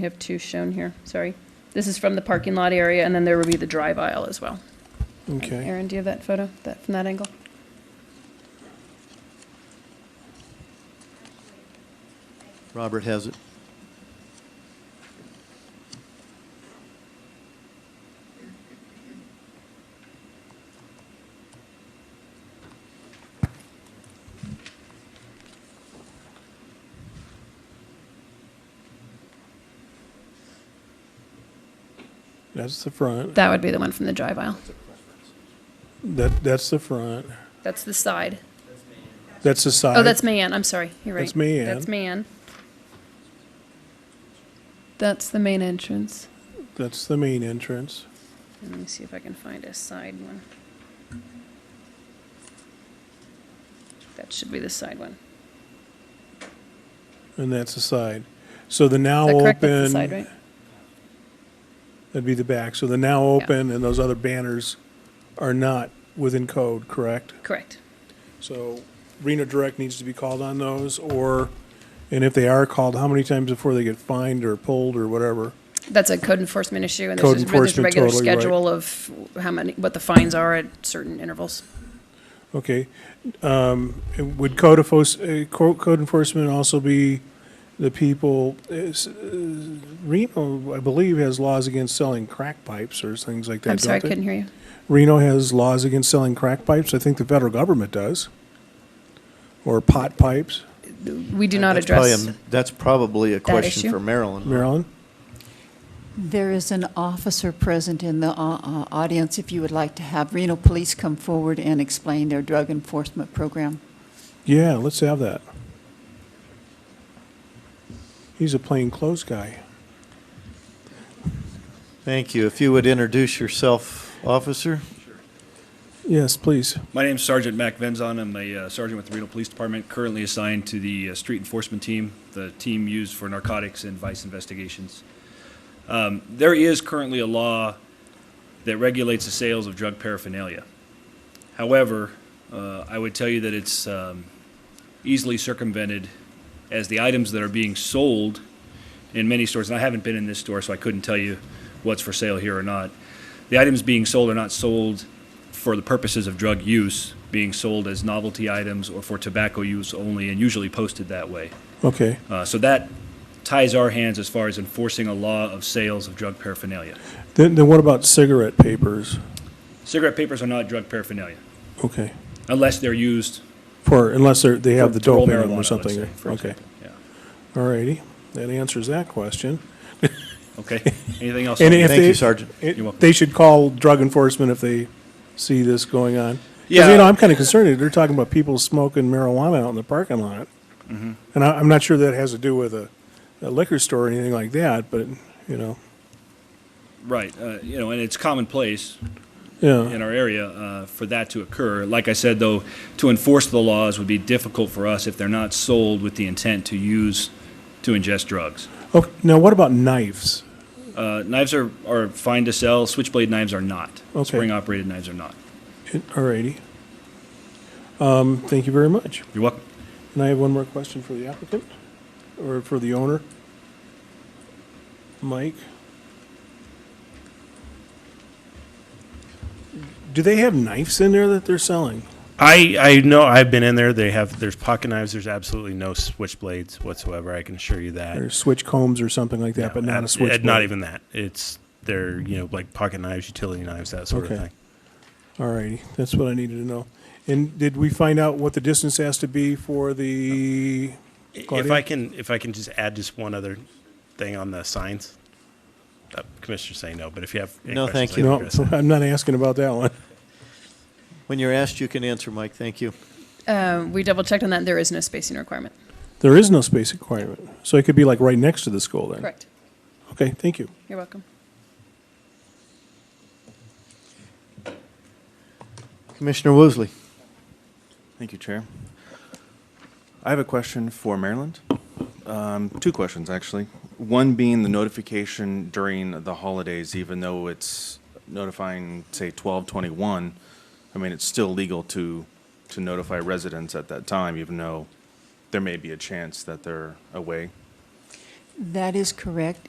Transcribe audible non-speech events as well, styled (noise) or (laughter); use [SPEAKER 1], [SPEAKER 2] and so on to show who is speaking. [SPEAKER 1] We have two shown here, sorry. This is from the parking lot area, and then there will be the drive aisle as well.
[SPEAKER 2] Okay.
[SPEAKER 1] Aaron, do you have that photo, that, from that angle?
[SPEAKER 3] Robert has it.
[SPEAKER 2] That's the front.
[SPEAKER 1] That would be the one from the drive aisle.
[SPEAKER 2] That, that's the front.
[SPEAKER 1] That's the side.
[SPEAKER 2] That's the side.
[SPEAKER 1] Oh, that's Mayan, I'm sorry, you're right.
[SPEAKER 2] That's Mayan.
[SPEAKER 1] That's Mayan. That's the main entrance.
[SPEAKER 2] That's the main entrance.
[SPEAKER 1] Let me see if I can find a side one. That should be the side one.
[SPEAKER 2] And that's the side. So the now
[SPEAKER 1] Is that correct? That's the
[SPEAKER 2] open,
[SPEAKER 1] side, right?
[SPEAKER 2] that'd be the back. So the now open and those other banners are not within code, correct?
[SPEAKER 1] Correct.
[SPEAKER 2] So Reno Direct needs to be called on those or, and if they are called, how many times before they get fined or pulled or whatever?
[SPEAKER 1] That's a code enforcement issue, and
[SPEAKER 2] Code
[SPEAKER 1] there's just, there's a
[SPEAKER 2] enforcement,
[SPEAKER 1] regular
[SPEAKER 2] totally right.
[SPEAKER 1] schedule of how many, what the fines are at certain intervals.
[SPEAKER 2] Okay. Um, would code enforcement, code enforcement also be the people, is, uh, Reno, I believe, has laws against selling crack pipes or things like that,
[SPEAKER 1] I'm sorry, I
[SPEAKER 2] don't they?
[SPEAKER 1] couldn't hear you.
[SPEAKER 2] Reno has laws against selling crack pipes. I think the federal government does. Or pot pipes,
[SPEAKER 1] We do not
[SPEAKER 3] Uh, That's probably
[SPEAKER 1] address,
[SPEAKER 3] a- That's probably a question
[SPEAKER 1] issue.
[SPEAKER 3] for Marilyn.
[SPEAKER 2] Maryland.
[SPEAKER 4] There is an officer present in the uh, uh, audience if you would like to have Reno Police come forward and explain their drug enforcement program.
[SPEAKER 2] Yeah, let's have that. He's a plainclothes guy.
[SPEAKER 3] Thank you. If you would introduce yourself, officer?
[SPEAKER 2] Yes, please.
[SPEAKER 5] My name's Sergeant Mac Venzon. I'm a uh, sergeant with the Reno Police Department, currently assigned to the uh, street enforcement team, the team used for narcotics and vice investigations. Um, there is currently a law that regulates the sales of drug paraphernalia. However, uh, I would tell you that it's um, easily circumvented as the items that are being sold in many stores, and I haven't been in this store, so I couldn't tell you what's for sale here or not. The items being sold are not sold for the purposes of drug use, being sold as novelty items or for tobacco use only, and usually posted that way.
[SPEAKER 2] Okay.
[SPEAKER 5] Uh, so that ties our hands as far as enforcing a law of sales of drug paraphernalia.
[SPEAKER 2] Then, then what about cigarette papers?
[SPEAKER 5] Cigarette papers are not drug paraphernalia
[SPEAKER 2] Okay.
[SPEAKER 5] unless they're used.
[SPEAKER 2] For, unless they're, they have
[SPEAKER 5] for
[SPEAKER 2] the
[SPEAKER 5] to roll
[SPEAKER 2] dope in them
[SPEAKER 5] marijuana,
[SPEAKER 2] or
[SPEAKER 5] let's
[SPEAKER 2] something.
[SPEAKER 5] say, for
[SPEAKER 2] Okay.
[SPEAKER 5] example. Yeah.
[SPEAKER 2] All righty. That answers that question. (laughs)
[SPEAKER 5] Okay. Anything else?
[SPEAKER 2] And if
[SPEAKER 3] Thank
[SPEAKER 2] they-
[SPEAKER 3] you, Sergeant.
[SPEAKER 2] it-
[SPEAKER 5] You're welcome.
[SPEAKER 2] They should call drug enforcement if they see this going on. 'Cause,
[SPEAKER 5] Yeah.
[SPEAKER 2] you know, I'm kind of concerned. that They're talking about people smoking marijuana out in the parking lot.
[SPEAKER 3] Mm-hmm.
[SPEAKER 2] And I, I'm not sure that has to do with a, a liquor store or anything like that, but, you know,
[SPEAKER 5] right. Uh, you know, and it's commonplace. in
[SPEAKER 2] yeah.
[SPEAKER 5] our area uh, for that to occur. Like I said, though, to enforce the laws would be difficult for us if they're not sold with the intent to use, to ingest drugs.
[SPEAKER 2] Okay, now what about knives?
[SPEAKER 5] Uh, Knives are, are fine to sell, switchblade knives are not.
[SPEAKER 2] Okay.
[SPEAKER 5] Spring-operated knives are not.
[SPEAKER 2] All righty. Um, thank you very much.
[SPEAKER 5] You're welcome.
[SPEAKER 2] And I have one more question for the applicant, or for the owner. Mike? Do they have knives in there that they're selling?
[SPEAKER 6] I, I know I've been in there. They have there's pocket knives. There's absolutely no switchblades whatsoever. I can assure you that.
[SPEAKER 2] Or switch combs or something like that, but not a
[SPEAKER 6] Ab-
[SPEAKER 2] switchblade?
[SPEAKER 6] uh, Not even that. It's they're you know like pocket knives, utility knives, that sort
[SPEAKER 2] Okay.
[SPEAKER 6] of thing.
[SPEAKER 2] All righty, that's what I needed to know. And did we find out what the distance has to be for the?
[SPEAKER 6] If
[SPEAKER 2] Claudia?
[SPEAKER 6] I can if I can just add just one other thing on the signs. Uh, Commissioner's saying no, but if you have any
[SPEAKER 3] No,
[SPEAKER 6] questions,
[SPEAKER 3] thank
[SPEAKER 6] I
[SPEAKER 3] you.
[SPEAKER 6] can
[SPEAKER 2] No,
[SPEAKER 6] address
[SPEAKER 2] (laughs)
[SPEAKER 6] that.
[SPEAKER 2] I'm not asking about that one.
[SPEAKER 3] When you're asked, you can answer, Mike. Thank you.
[SPEAKER 1] uh, we double-checked on that, there is no spacing requirement.
[SPEAKER 2] There is no space requirement, so it could be like right next to the school then?
[SPEAKER 1] Correct.
[SPEAKER 2] Okay, thank you.
[SPEAKER 1] You're welcome.
[SPEAKER 3] Commissioner Woosley?
[SPEAKER 7] Thank you, Chair. I have a question for Maryland. Um, Two questions, actually. One being the notification during the holidays, even though it's notifying, say, 1221, I mean, it's still legal to, to notify residents at that time, even though there may be a chance that they're away.
[SPEAKER 4] That is correct.